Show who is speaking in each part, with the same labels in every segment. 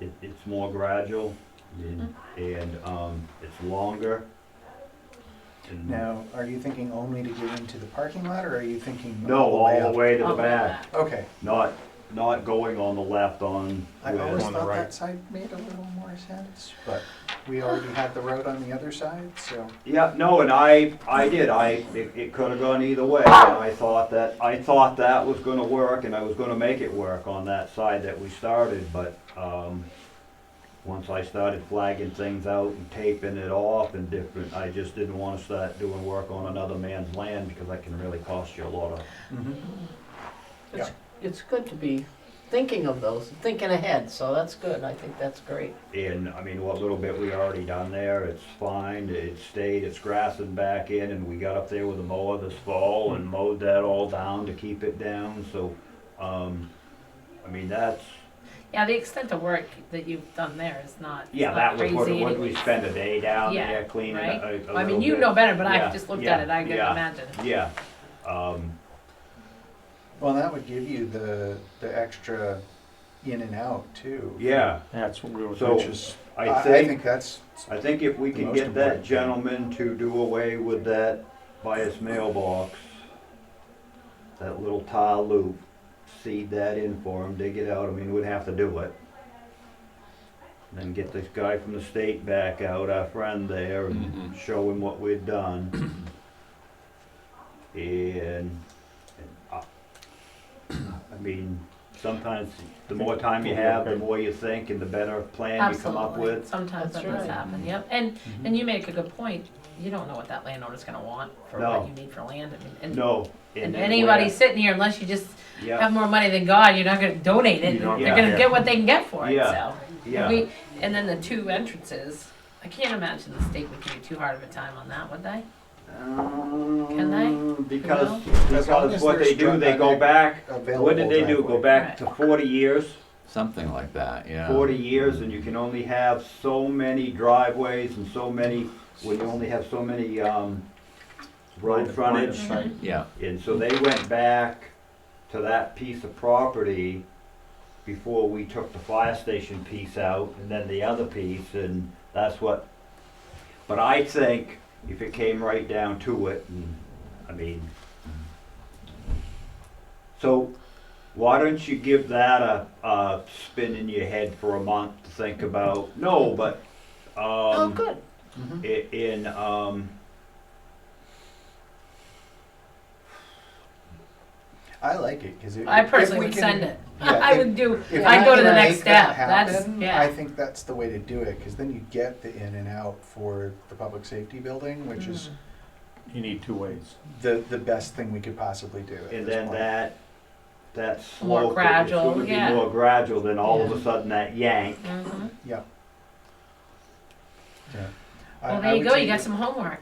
Speaker 1: It, it's more gradual and, and, um, it's longer. And-
Speaker 2: Now, are you thinking only to get into the parking lot, or are you thinking?
Speaker 1: No, all the way to the back,
Speaker 2: Okay,
Speaker 1: not, not going on the left on.
Speaker 2: I
Speaker 1: with-
Speaker 2: always
Speaker 3: On the
Speaker 2: thought
Speaker 3: right.
Speaker 2: that side made a little more sense, but we already had the road on the other side, so.
Speaker 1: Yeah, no, and I, I did, I, it, it could have gone either way, and I thought that, I thought that was gonna work, and I was gonna make it work on that side that we started, but, um, once I started flagging things out and taping it off and different, I just didn't wanna start doing work on another man's land, because that can really cost you a lot of,
Speaker 4: It's, it's good to be thinking of those, thinking ahead, so that's good, I think that's great.
Speaker 1: and, I mean, what little bit we already done there, it's fine, it stayed, it's grassing back in, and we got up there with a mower this fall
Speaker 5: Hmm.
Speaker 1: and mowed that all down to keep it down, so, um, I mean, that's,
Speaker 5: Yeah, the extent of work that you've done there is not.
Speaker 1: yeah,
Speaker 5: not
Speaker 1: that was what,
Speaker 5: crazy
Speaker 1: what we
Speaker 5: anyways.
Speaker 1: spend a day down
Speaker 5: Yeah,
Speaker 1: there cleaning
Speaker 5: right?
Speaker 1: a, a
Speaker 5: Well, I
Speaker 1: little
Speaker 5: mean, you
Speaker 1: bit.
Speaker 5: know better, but
Speaker 1: Yeah,
Speaker 5: I've just looked
Speaker 1: yeah,
Speaker 5: at it, I couldn't
Speaker 1: yeah.
Speaker 5: imagine.
Speaker 1: Yeah, um,
Speaker 2: Well, that would give you the, the extra in and out too.
Speaker 1: yeah,
Speaker 3: That's what we were
Speaker 1: So-
Speaker 2: Which
Speaker 3: thinking.
Speaker 2: is, I,
Speaker 1: I
Speaker 2: I
Speaker 1: think,
Speaker 2: think that's,
Speaker 1: I think if we
Speaker 2: the
Speaker 1: can
Speaker 2: most
Speaker 1: get that
Speaker 2: important thing.
Speaker 1: gentleman to do away with that bias mailbox, that little tile loop, seed that in for him, dig it out, I mean, we'd have to do it. Then get this guy from the state back out, our friend there,
Speaker 2: Mm-hmm.
Speaker 1: and show him what we'd done. And, and I, I mean, sometimes the more time you have, the more you think and the better plan you come up
Speaker 5: Absolutely,
Speaker 1: with. Mm-hmm.
Speaker 5: sometimes
Speaker 4: That's
Speaker 5: that does
Speaker 4: right.
Speaker 5: happen, yep, and, and you make a good point, you don't know what that landowner's gonna want for
Speaker 1: No.
Speaker 5: what you need for land, I mean, and,
Speaker 1: No.
Speaker 5: and
Speaker 1: then
Speaker 5: anybody
Speaker 1: where-
Speaker 5: sitting here, unless you just
Speaker 1: Yeah,
Speaker 5: have more money than God, you're not gonna donate it,
Speaker 3: You're not
Speaker 5: they're
Speaker 1: gonna
Speaker 5: gonna
Speaker 3: get-
Speaker 5: get what they can get for it,
Speaker 1: Yeah.
Speaker 5: so.
Speaker 1: yeah.
Speaker 5: We, and then the two entrances, I can't imagine the state would give you too hard of a time on that, would they?
Speaker 1: Can
Speaker 5: they?
Speaker 1: Um, Because,
Speaker 2: As long
Speaker 1: because
Speaker 2: as
Speaker 1: what
Speaker 2: they're
Speaker 1: they do,
Speaker 2: struck
Speaker 1: they
Speaker 2: on
Speaker 1: go
Speaker 2: that
Speaker 1: back,
Speaker 2: available.
Speaker 1: what did they do, go
Speaker 2: driveway.
Speaker 1: back to forty years?
Speaker 6: Something like that, yeah.
Speaker 1: Forty years, and you can only have so many driveways and so many, when you only have so many, um, road frontage.
Speaker 5: Mm-hmm.
Speaker 6: Yeah,
Speaker 1: And so they went back to that piece of property before we took the fire station piece out and then the other piece and that's what, but I think if it came right down to it, and, I mean, so why don't you give that a, a spin in your head for a month to think about? No, but,
Speaker 5: Oh,
Speaker 1: um.
Speaker 5: good,
Speaker 2: Mhm.
Speaker 1: I- in um
Speaker 2: I like it, cause it.
Speaker 5: I
Speaker 2: if
Speaker 5: personally
Speaker 2: we
Speaker 5: would
Speaker 2: can-
Speaker 5: send it,
Speaker 2: yeah,
Speaker 5: I
Speaker 2: if-
Speaker 5: would do,
Speaker 2: If
Speaker 5: I'd
Speaker 2: we
Speaker 5: go to the
Speaker 2: can
Speaker 5: next
Speaker 2: make that
Speaker 5: step, that's,
Speaker 2: happen, I
Speaker 5: yeah,
Speaker 2: think that's the way to do it, cause then you get the in and out for the public safety building, which
Speaker 5: Mm-hmm.
Speaker 2: is
Speaker 3: You need two ways.
Speaker 2: the, the best thing we could possibly do at
Speaker 1: And
Speaker 2: this
Speaker 1: then
Speaker 2: point.
Speaker 1: that, that
Speaker 5: More
Speaker 1: slope, it's
Speaker 5: gradual,
Speaker 1: gonna be
Speaker 5: yeah.
Speaker 1: more gradual than all of a
Speaker 5: Yeah.
Speaker 1: sudden that yank.
Speaker 5: Mhm.
Speaker 2: Yeah. Yeah. I-
Speaker 5: Well,
Speaker 2: I
Speaker 5: there you
Speaker 2: would
Speaker 5: go,
Speaker 2: say
Speaker 5: you got
Speaker 2: that-
Speaker 5: some homework.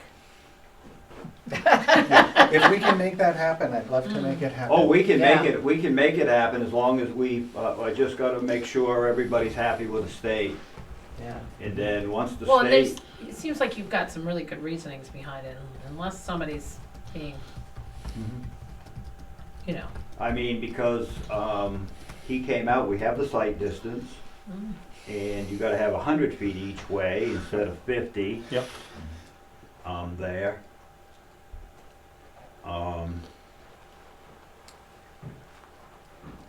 Speaker 2: If we can make that happen, I'd love to
Speaker 5: Mm.
Speaker 2: make it happen.
Speaker 1: Oh, we can make
Speaker 5: Yeah.
Speaker 1: it, we can make it happen as long as we, uh, I just gotta make sure everybody's happy with the state.
Speaker 2: Yeah.
Speaker 1: And then, once the
Speaker 5: Well, and there's,
Speaker 1: state,
Speaker 5: it seems like you've got some really good reasonings behind it, unless somebody's being,
Speaker 2: Mhm.
Speaker 5: you know,
Speaker 1: I mean, because, um, he came out, we have the sight distance,
Speaker 5: mm,
Speaker 1: and you gotta have a hundred feet each way instead of fifty.
Speaker 3: Yep.
Speaker 1: Um, there. Um.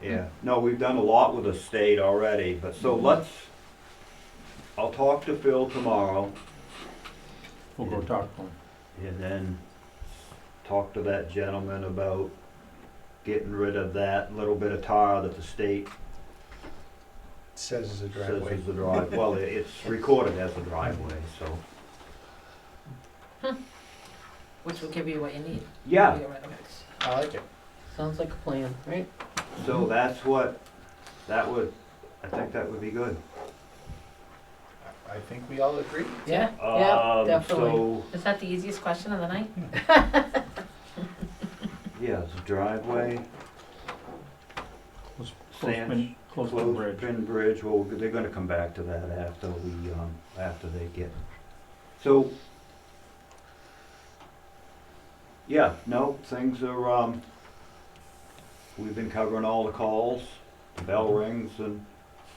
Speaker 1: Yeah, no, we've done a lot with the state already, but so
Speaker 3: Mm-hmm.
Speaker 1: let's, I'll talk to Phil tomorrow
Speaker 3: We'll go talk to them.
Speaker 1: and then talk to that gentleman about getting rid of that little bit of tar that the state
Speaker 2: Says it's a
Speaker 1: says
Speaker 2: driveway.
Speaker 1: is the drive, well, it- it's recorded as a driveway, so.
Speaker 5: which will give you what you need.
Speaker 1: Yeah,
Speaker 2: I like it.
Speaker 4: Sounds like a plan, right?
Speaker 1: so that's what, that would, I think that would be good.
Speaker 2: I think we all agree.
Speaker 4: Yeah.
Speaker 1: Um,
Speaker 4: definitely.
Speaker 1: So,
Speaker 5: Is that the easiest question of the night?
Speaker 1: yeah, it's a driveway,
Speaker 3: Close-
Speaker 1: Sands.
Speaker 3: Closepin, closepin bridge.
Speaker 1: closed-pin bridge, well, they're gonna come back to that after we, um, after they get. So, yeah, no, things are, um, we've been covering all the calls, the bell rings, and